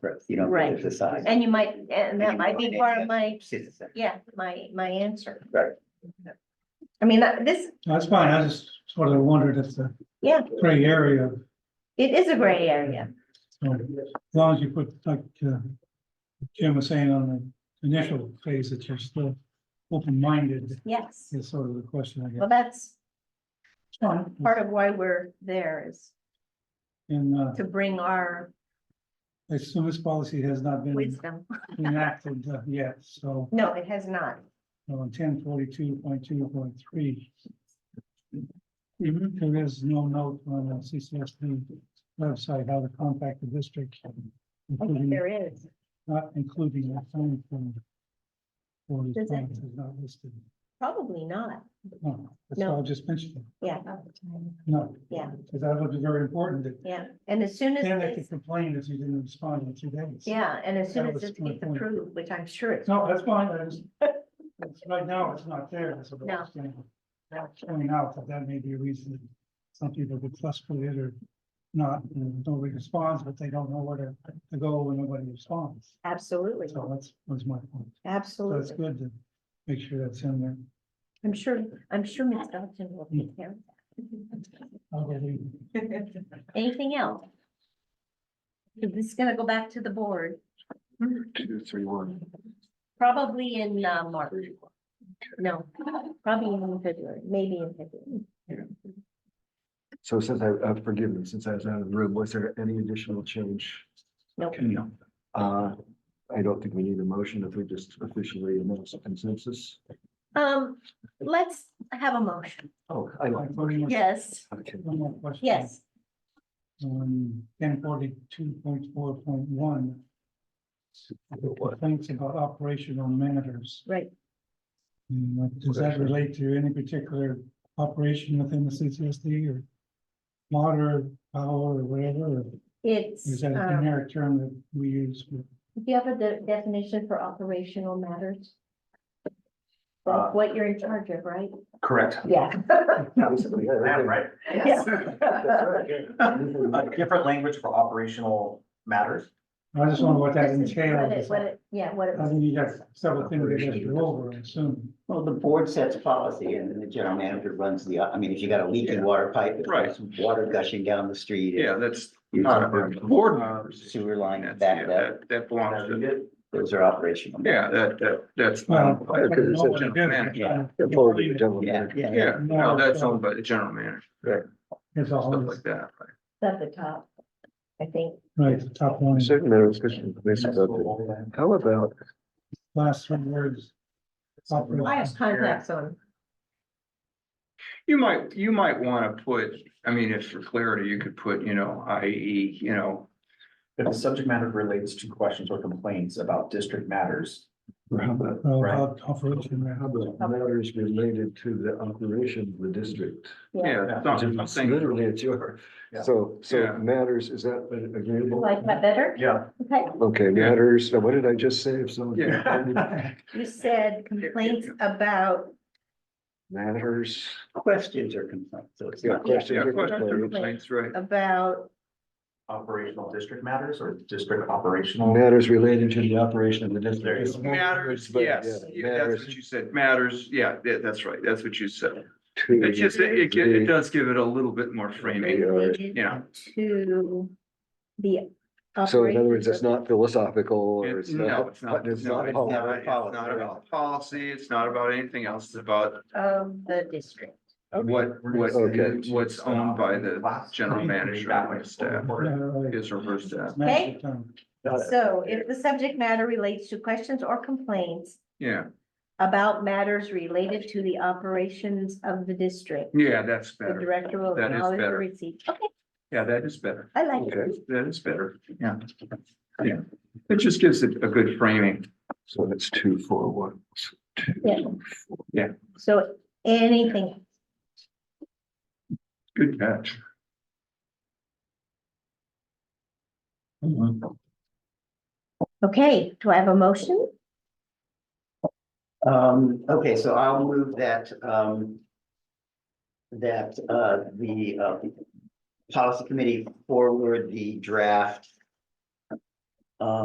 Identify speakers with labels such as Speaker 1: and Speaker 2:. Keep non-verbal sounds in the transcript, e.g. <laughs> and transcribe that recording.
Speaker 1: you don't get
Speaker 2: Right.
Speaker 1: to decide.
Speaker 2: And you might, and that might be part of my,
Speaker 1: She's the second.
Speaker 2: yeah, my, my answer.
Speaker 1: Right.
Speaker 2: I mean, that- this,
Speaker 3: That's fine. I just sort of wondered if the
Speaker 2: Yeah.
Speaker 3: gray area,
Speaker 2: it is a gray area.
Speaker 3: so as long as you put, like, uh, Jim was saying on the initial phase that you're still open-minded
Speaker 2: Yes.
Speaker 3: is sort of the question, I guess.
Speaker 2: Well, that's
Speaker 3: Fine.
Speaker 2: part of why we're there is
Speaker 3: And, uh,
Speaker 2: to bring our
Speaker 3: I assume this policy has not been
Speaker 2: wisdom.
Speaker 3: enacted uh, yet, so
Speaker 2: No, it has not.
Speaker 3: on ten forty-two point two point three. There is no note on the CCSD website how to contact the district.
Speaker 2: I
Speaker 3: including-
Speaker 2: think there is.
Speaker 3: Not including that phone from. Or his
Speaker 2: Does it-
Speaker 3: phone is not listed.
Speaker 2: Probably not.
Speaker 3: No, that's what I just mentioned.
Speaker 2: Yeah,
Speaker 3: No.
Speaker 2: Yeah.
Speaker 3: Because that would be very important that
Speaker 2: yeah. And as soon as,
Speaker 3: then they could
Speaker 2: this-
Speaker 3: complain if you didn't respond in two days.
Speaker 2: yeah, and as soon
Speaker 3: That
Speaker 2: as
Speaker 3: was
Speaker 2: this
Speaker 3: my
Speaker 2: gets
Speaker 3: point.
Speaker 2: approved, which I'm sure it's,
Speaker 3: No, that's fine.
Speaker 2: <laughs>
Speaker 3: I just, it's- right now, it's not there. That's what I was saying. Pointing out that that may be a reason that some people get frustrated or not, and nobody responds, but they don't know where to to go when nobody responds.
Speaker 2: absolutely,
Speaker 3: So that's was my point. So it's
Speaker 2: absolutely.
Speaker 3: good to make sure that's in there.
Speaker 2: I'm sure, I'm sure Ms. Dodson will take care of that.
Speaker 3: I'll go read it.
Speaker 2: Anything else? This is gonna go back to the board,
Speaker 4: Two, three, one.
Speaker 2: probably in uh, March. No, probably in February, maybe in February.
Speaker 4: So since I, uh, forgive me, since I was out of the room, was there any additional change?
Speaker 2: Nope.
Speaker 4: Okay, No. Uh, I don't think we need a motion if we just officially announce a consensus.
Speaker 2: Um, let's have a motion.
Speaker 4: Oh, I like.
Speaker 3: Like, what do you-
Speaker 2: Yes,
Speaker 4: Okay,
Speaker 3: One more question.
Speaker 2: yes,
Speaker 3: On ten forty-two point four point one. Complaints about operational matters.
Speaker 2: right.
Speaker 3: And what- Does that relate to any particular operation within the CCSD or water, power, or whatever? or Is
Speaker 2: It's,
Speaker 3: that a
Speaker 2: um,
Speaker 3: generic term that we use? for-
Speaker 2: do you have a de- definition for operational matters?
Speaker 4: Uh,
Speaker 2: That's what you're in charge of, right?
Speaker 5: Correct.
Speaker 2: Yeah.
Speaker 4: Basically, yeah,
Speaker 5: Yeah,
Speaker 4: okay.
Speaker 5: right. <laughs>
Speaker 2: Yes.
Speaker 4: That's right.
Speaker 5: A different language for operational matters.
Speaker 3: I just wonder what that
Speaker 2: This is what it-
Speaker 3: entails.
Speaker 2: What it, yeah, what it
Speaker 3: I
Speaker 2: was.
Speaker 3: think you got several things that you have to go over, I assume.
Speaker 1: Well, the board sets policy and then the general manager runs the, I mean, if you got a leaking water pipe, if
Speaker 6: Right.
Speaker 1: there's water gushing down the street.
Speaker 6: Yeah, that's
Speaker 1: You
Speaker 6: not a
Speaker 1: talk
Speaker 6: board
Speaker 1: about-
Speaker 6: members.
Speaker 1: Sewer line
Speaker 6: That's, yeah,
Speaker 1: backed up,
Speaker 6: that, that belongs to,
Speaker 1: those are operational.
Speaker 6: yeah, that, that, that's.
Speaker 3: Well, I
Speaker 6: Yeah,
Speaker 3: don't know what
Speaker 6: general
Speaker 3: it is.
Speaker 6: manager.
Speaker 1: Yeah.
Speaker 4: It's all the general
Speaker 1: Yeah,
Speaker 4: manager.
Speaker 1: yeah.
Speaker 6: Yeah, no, that's owned by the general manager,
Speaker 3: It's
Speaker 6: stuff
Speaker 3: all,
Speaker 6: like that.
Speaker 2: at the top, I think.
Speaker 3: right, the top line,
Speaker 4: Certain matters, question, this about the- how about,
Speaker 3: last three words. Operational.
Speaker 2: I have contacts on.
Speaker 6: You might, you might want to put, I mean, if for clarity, you could put, you know, IE, you know,
Speaker 5: If the subject matter relates to questions or complaints about district matters,
Speaker 4: or how about,
Speaker 3: Oh,
Speaker 5: Right.
Speaker 3: op- Operation, right.
Speaker 4: how about matters related to the operation of the district?
Speaker 6: yeah, it's not-
Speaker 4: It's
Speaker 6: something,
Speaker 4: Literally, it's your,
Speaker 5: Yeah.
Speaker 4: so, so
Speaker 6: Yeah.
Speaker 4: matters, is that agreeable?
Speaker 2: Like that better?
Speaker 5: <laughs> yeah.
Speaker 2: Okay,
Speaker 4: Okay,
Speaker 6: Yeah.
Speaker 4: matters, now what did I just say? If someone
Speaker 2: you said complaints about
Speaker 4: matters,
Speaker 1: Questions or complaints, so it's
Speaker 4: yeah,
Speaker 1: not.
Speaker 4: questions
Speaker 6: yeah,
Speaker 4: or
Speaker 6: questions or
Speaker 4: complaints?
Speaker 6: complaints, right?
Speaker 2: about,
Speaker 5: Operational district matters or district operational.
Speaker 4: Matters related to the operation of the
Speaker 5: There you
Speaker 4: district.
Speaker 5: go.
Speaker 6: Matters,
Speaker 4: But, yeah,
Speaker 6: yes, yeah, that's
Speaker 4: Matters
Speaker 6: what you said, matters, yeah, that- that's right, that's what you said.
Speaker 4: to.
Speaker 6: It just, it, it gi- it does give it a little bit more framing.
Speaker 2: related
Speaker 6: Yeah.
Speaker 2: to the.
Speaker 4: So in other words, it's
Speaker 2: operations
Speaker 4: not philosophical or
Speaker 6: It-
Speaker 4: it's
Speaker 6: No,
Speaker 4: not.
Speaker 6: it's not, no,
Speaker 4: It's
Speaker 6: it's not,
Speaker 4: not.
Speaker 6: it's
Speaker 4: about-
Speaker 1: a policy,
Speaker 6: not about policy, it's not about anything else, it's about
Speaker 2: Of the district.
Speaker 6: what, what,
Speaker 4: Okay.
Speaker 6: what's owned by the general manager and his staff,
Speaker 3: Yeah, right.
Speaker 6: his or her staff,
Speaker 3: Master plan.
Speaker 4: Uh,
Speaker 2: So if the subject matter relates to questions or complaints
Speaker 6: yeah,
Speaker 2: about matters related to the operations of the district.
Speaker 6: yeah, that's
Speaker 2: The
Speaker 6: better,
Speaker 2: director will
Speaker 6: That is
Speaker 2: acknowledge the
Speaker 6: better.
Speaker 2: receipt. Okay,
Speaker 6: yeah, that is better,
Speaker 2: I like
Speaker 4: Okay.
Speaker 2: it.
Speaker 6: that is better, yeah. Yeah, it just gives it a good framing,
Speaker 4: So that's two, four, one. two,
Speaker 2: Yeah.
Speaker 4: four.
Speaker 2: So anything,
Speaker 6: good catch.
Speaker 2: okay, do I have a motion?
Speaker 1: Um, okay, so I'll move that, um. That, uh, the, uh, policy committee forward the draft uh,